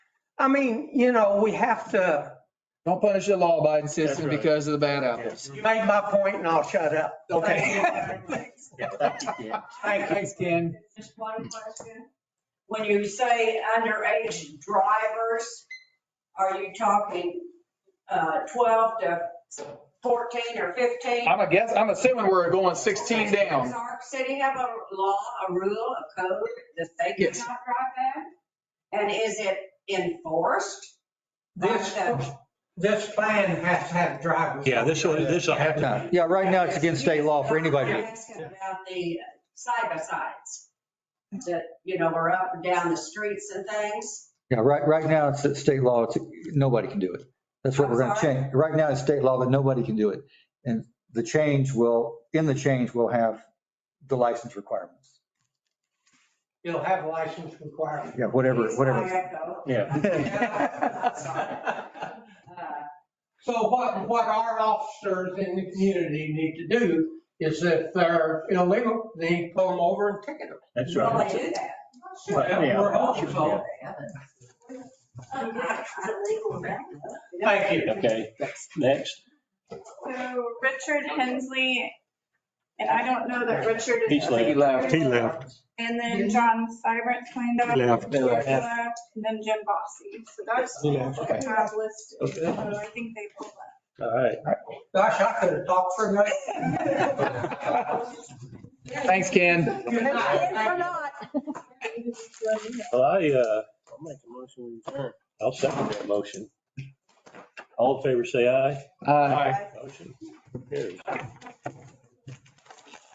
I mean, you know, we have to, Don't punish the law abiding That's citizen right. because of the bad apples. Mm-hmm. you made my point and I'll shut up. Yeah, thank you, Ken. Thank you. Thanks, Ken. Just one question. When you say underage drivers, are you talking uh, 12 to 14 or 15? I'm a guess, I'm assuming we're going 16 Does down. our city have a law, a rule, a code that they Yes. cannot drive that? And is it enforced? by This, the- this plan has to have drivers. Yeah, this will, this will have to, No, Yeah, right now it's against state law for anybody. I'm asking About the side by sides that, you know, are up and down the streets and things. Yeah, right, right now it's it's state law. It's, nobody can do it. That's what we're going I'm to sorry? change. Right now it's state law, but nobody can do it. And the change will, in the change, we'll have the license requirements. You'll have license requirements. Yeah, whatever, Please, whatever. I echo. Yeah. Uh, So what, what our officers in the community need to do is if they're illegal, they need to pull them over and ticket them. that's Well, right. they do that. Right, yeah. We're hopeful. Thank you. Okay, next. So Richard Hensley, and I don't know that Richard He's is. left. He left. he left, And then John Seibert cleaned up. he left. George left, And then Jim Bossy. So that's He left. what I have listed. Okay. So I think they pulled that. All right. Gosh, I could have talked for a minute. Thanks, Ken. Good night. Thank you. Well, I, uh, I'll make a motion. we adjourn. I'll second that motion. All in favor, say aye. Uh, Motion carries.